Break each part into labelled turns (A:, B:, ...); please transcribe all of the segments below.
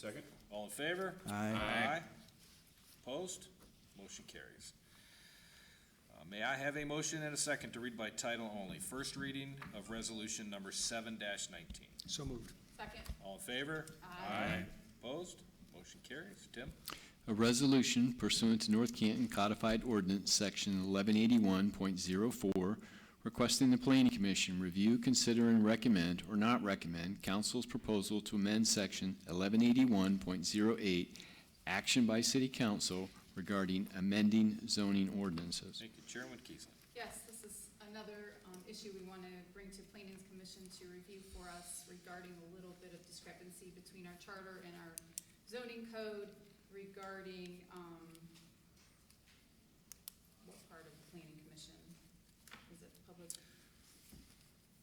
A: Second. All in favor?
B: Aye.
A: Aye. Opposed? Motion carries. Uh, May I have a motion and a second to read by title only? First reading of resolution number seven nineteen.
B: So moved.
C: Second.
A: All in favor? Aye. Opposed? Motion carries. Tim?
D: A resolution pursuant to North Canton Codified Ordinance, Section 1181.04, requesting the Planning Commission review, consider, and recommend, or not recommend, council's proposal to amend Section 1181.08, action by city council regarding amending zoning ordinances.
A: Thank you. Chairman Kiesling.
C: Yes, this is another um, issue we want to bring to Planning's Commission to review for us regarding a little bit of discrepancy between our charter and our zoning code regarding, um, what part of the Planning Commission? Is it public?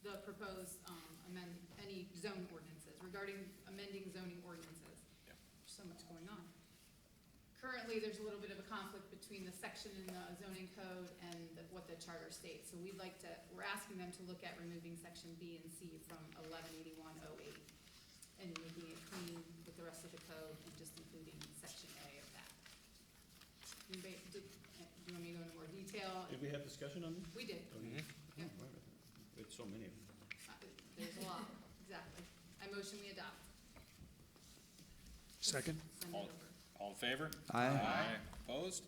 C: The proposed um, amend, any zone ordinances, regarding amending zoning ordinances.
A: Yep.
C: There's So much going on. currently, there's a little bit of a conflict between the section in the zoning code and the- what the charter states. So we'd like to, we're asking them to look at removing section B and C from eleven eighty-one oh eight and making it clean with the rest of the code and just including section A of that. Anybody- did- uh, do you want me to go into more detail?
E: Did we have discussion on this?
C: We did, Yep.
E: It's so many of them.
C: Uh, there's a lot, exactly. I motion we adopt,
B: Second?
C: send it
A: All-
C: over.
A: All in favor?
B: Aye.
A: Aye. Opposed?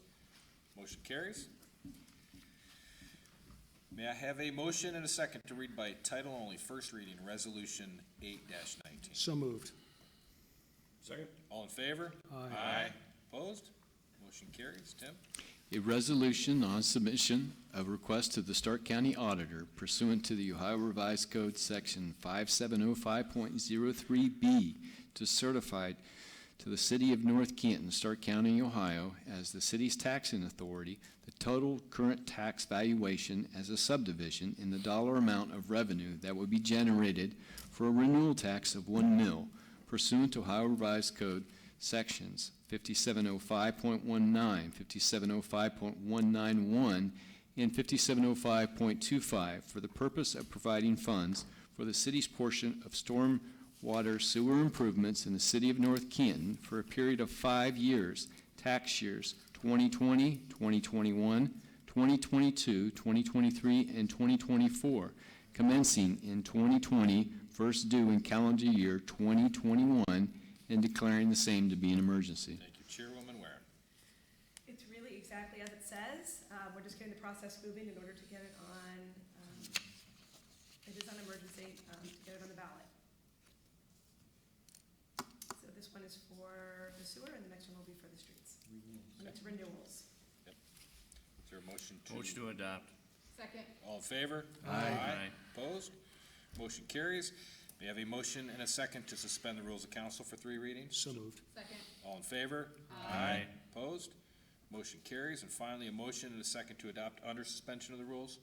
A: Motion carries. May I have a motion and a second to read by title only, first reading, resolution eight nineteen?
B: So moved.
E: Second?
A: All in favor?
B: Aye.
A: Opposed? Motion carries. Tim?
D: A resolution on submission of request to the Stark County Auditor pursuant to the Ohio Revised Code, Section 5705.03B, to certify to the City of North Canton, Stark County, Ohio, as the city's taxing authority, the total current tax valuation as a subdivision in the dollar amount of revenue that would be generated for a renewal tax of one mil pursuant to Ohio Revised Code, Sections 5705.19, 5705.191, and 5705.25 for the purpose of providing funds for the city's portion of storm water sewer improvements in the city of North Canton for a period of five years, tax years 2020, 2021, 2022, 2023, and 2024, commencing in 2020, first due in calendar year 2021, and declaring the same to be an emergency.
A: Thank you. Chairwoman Warren.
F: It's really exactly as it says. Uh, We're just getting the process moving in order to get it on, um, it is on emergency, um, to get it on the ballot. So this one is for the sewer and the next one will be for the streets. And it's renewals.
A: Is there a motion to?
G: Motion to adopt.
C: Second,
A: All in favor?
B: Aye.
A: Opposed? Motion carries. May I have a motion and a second to suspend the rules of council for three readings?
B: So moved.
C: second,
A: All in favor?
G: Aye.
A: Opposed? Motion carries. And finally, a motion and a second to adopt under suspension of the rules.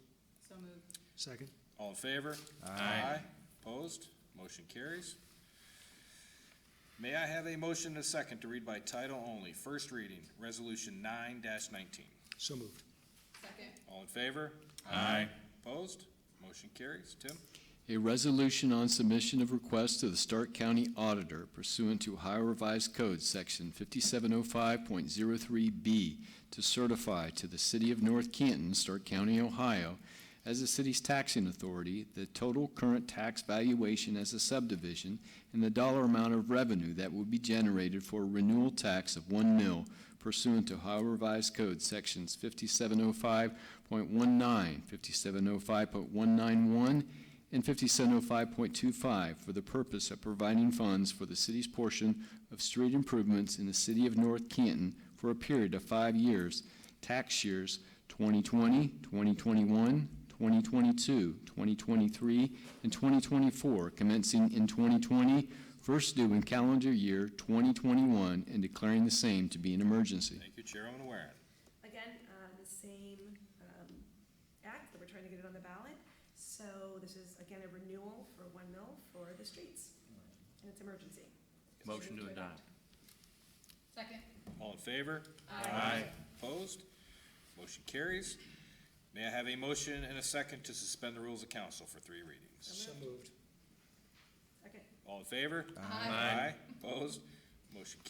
C: so moved.
B: Second?
A: All in favor?
G: Aye.
A: Opposed? Motion carries. May I have a motion and a second to read by title only, first reading, resolution nine nineteen?
B: So moved.
C: Second,
A: All in favor?
G: Aye.
A: Opposed? Motion carries. Tim?
D: A resolution on submission of request to the Stark County Auditor pursuant to Ohio Revised Code, Section 5705.03B, to certify to the City of North Canton, Stark County, Ohio, as the city's taxing authority, the total current tax valuation as a subdivision and the dollar amount of revenue that would be generated for a renewal tax of one mil pursuant to Ohio Revised Code, Sections 5705.19, 5705.191, and 5705.25 for the purpose of providing funds for the city's portion of street improvements in the city of North Canton for a period of five years, tax years 2020, 2021, 2022, 2023, and 2024, commencing in 2020, first due in calendar year 2021, and declaring the same to be an emergency.
A: Thank you, Chairwoman Warren.
F: Again, uh, the same um, act that we're trying to get it on the ballot. So this is, again, a renewal for one mil for the streets. And it's emergency.
G: Motion to adopt.
C: second.
A: All in favor? Opposed? Motion carries. May I have a motion and a second to suspend the rules of council for three readings?
B: moved.
F: Second.
A: All in favor?
C: Aye.
A: Opposed? Motion